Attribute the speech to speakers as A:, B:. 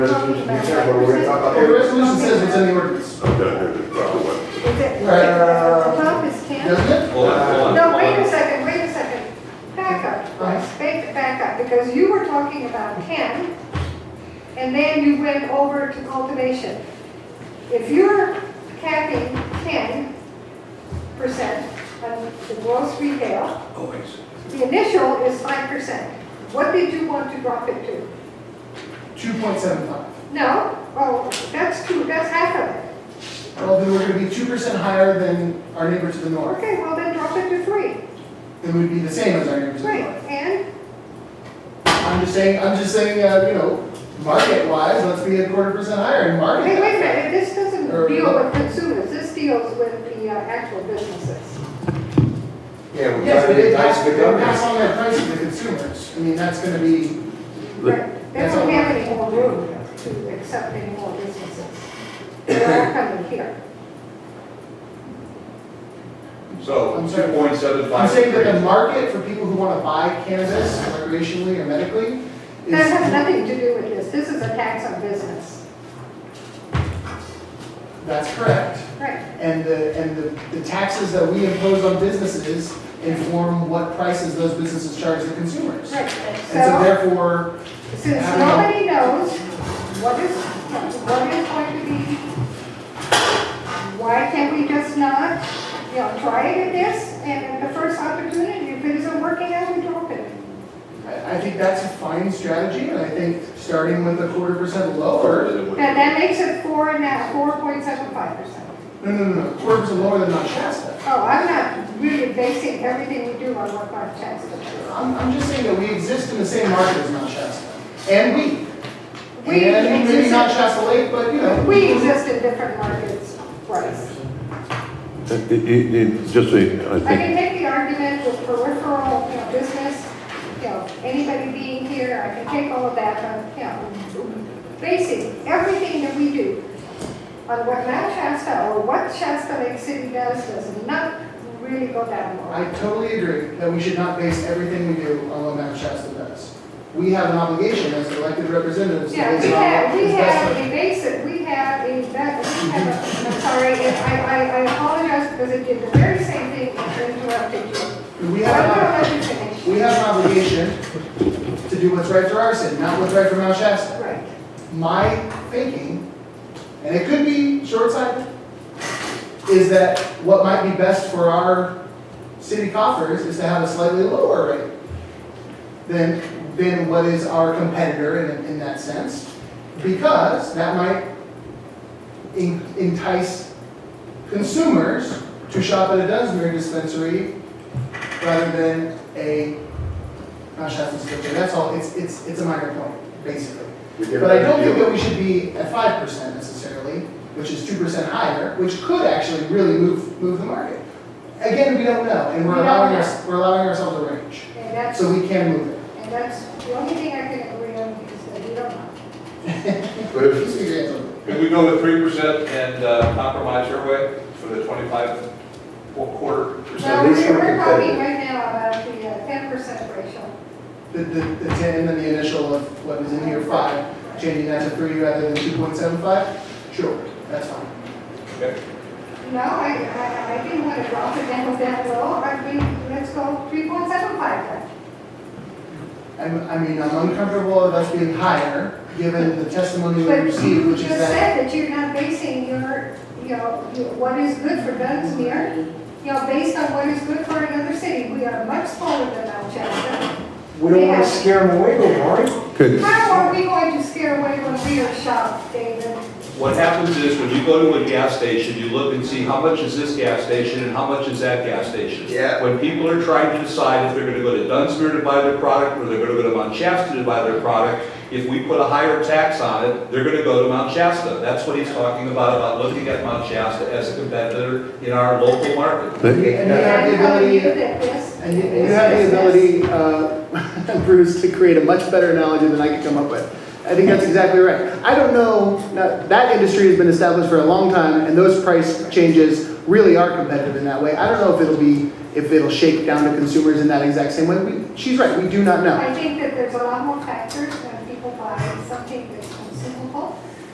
A: Resolution, we said, but we're gonna talk about
B: The
A: every-
B: resolution says it's in the ordinance,
C: I'm done here, the proper way.
D: Is it,
B: Uh,
D: the top is ten?
B: doesn't it?
E: Hold on, hold on.
D: No, wait a second, wait a second. Back up, Bryce, back, back up, because you were talking about ten, and then you went over to cultivation. If you're capping ten percent on the gross retail,
E: Oh, I see.
D: the initial is five percent. What did you want to drop it to?
B: Two point seven five.
D: No, oh, that's two, that's half of it.
B: Well, then we're gonna be two percent higher than our neighbor to the north.
D: Okay, well then drop it to three.
B: Then we'd be the same as our neighbor to the
D: Great,
B: north.
D: and,
B: I'm just saying, I'm just saying, uh, you know, market wise, let's be a quarter percent higher in market.
D: hey, wait a minute, this doesn't
B: Or-
D: deal with consumers, this deals with the uh, actual businesses.
A: Yeah, we
B: Yes,
A: gotta
B: but
A: be
B: they
A: nice
B: pass,
A: to the
B: they pass
A: government.
B: on their price to the consumers. I mean, that's gonna be,
D: Right, they
B: That's
D: don't
B: all.
D: have any more room to accept any more businesses. They're all coming here.
B: I'm
E: So,
B: sorry.
E: two point seven
B: I'm
E: five.
B: saying that the market for people who wanna buy cannabis recreationally or medically
D: That has
B: is,
D: nothing to do with this, this is a tax on business.
B: that's correct.
D: Right,
B: And the, and the, the taxes that we impose on businesses inform what prices those businesses charge the consumers.
D: right.
B: And so
D: So,
B: therefore,
D: since
B: I don't know.
D: nobody knows what is, what is going to be, why can't we just not, you know, try it at this, and at the first opportunity, if it isn't working out, we drop it.
B: I, I think that's a fine strategy, and I think starting with a quarter percent lower,
D: That, that makes it four now, four point seven five percent.
B: no, no, no, no, quarter percent lower than Mount Shasta.
D: Oh, I'm not really basing everything we do on what our tax is.
B: I'm, I'm just saying that we exist in the same market as Mount Shasta, and we.
D: We
B: And maybe
D: exist-
B: not Shasta Lake, but, you know.
D: We exist in different markets, Bryce.
C: It, it, it, just so, you know, I
D: I can
C: think,
D: make the argument with peripheral, you know, business, you know, anybody being here, I can take all of that, but, you know, basing everything that we do on what Mount Shasta or what Shasta Lake City does, does not really go down well.
B: I totally agree that we should not base everything we do on what Mount Shasta does. We have an obligation as elected representatives to
D: Yeah,
B: base
D: we
B: it
D: have,
B: on what
D: we
B: is
D: have
B: best.
D: a basic, we have a, that- we have a, I'm sorry, and I, I, I apologize because I did the very same thing and interrupted you.
B: for-
D: Why
B: We
D: don't I
B: have,
D: let you finish?
B: an- we have an obligation to do what's right for our city, not what's right for Mount Shasta.
D: Right,
B: My thinking, and it could be short-sighted, is that what might be best for our city coffers is to have a slightly lower rate than, than what is our competitor in, in that sense, because that might en- entice consumers to shop at a Dunsmere dispensary rather than a Mount Shasta dispensary. That's all, it's, it's, it's a minor point, basically.
A: We did a
B: But I
A: good
B: don't think
A: deal.
B: that we should be at five percent necessarily, which is two percent higher, which could actually really move, move the market. Again, we don't know, and
D: We
B: we're
D: don't
B: allowing
D: know.
B: our, we're allowing ourselves a range,
D: and that's,
B: so we can move it.
D: and that's the only thing I can agree on is that we don't know.
A: But if-
B: Just figure it out.
E: Could we go with three percent and uh, compromise your way for the twenty-five qu- quarter
D: Now,
A: at
E: percent?
A: least
D: we're,
A: we're
D: we're
A: competitive.
D: talking right now about the uh, ten percent ratio.
B: The, the, the ten, and then the initial of what is in here, five, changing that to three rather than two point seven five, sure, that's fine.
E: Okay.
D: No, I, I, I didn't want to drop it down that low, I mean, let's go three point seven five then.
B: I'm, I mean, I'm uncomfortable of us being higher, given the testimony we
D: But
B: received,
D: you
B: which
D: just
B: is that.
D: said that you're not basing your, you know, your- what is good for Dunsmere, you know, based on what is good for another city. We are much smaller than Mount Shasta.
A: We don't wanna scare them away, though, Marty.
C: could,
D: How are we going to scare away when we are shocked, David?
E: What happens is when you go to a gas station, you look and see how much is this gas station and how much is that gas station.
A: Yeah.
E: When people are trying to decide if they're gonna go to Dunsmere to buy their product or they're gonna go to Mount Shasta to buy their product, if we put a higher tax on it, they're gonna go to Mount Shasta. That's what he's talking about, about looking at Mount Shasta as a competitor in our local market.
C: that-
B: And you have the
D: And how do you
B: ability.
D: do that, yes?
B: And you- and
F: You have the ability, uh, Bruce, to create a much better analogy than I could come up with. I think that's exactly right. I don't know, now, that industry has been established for a long time, and those price changes really are competitive in that way. I don't know if it'll be, if it'll shake down to consumers in that exact same way. We- She's right, we do not know.
D: I think that there's a lot more factors when people buy something that's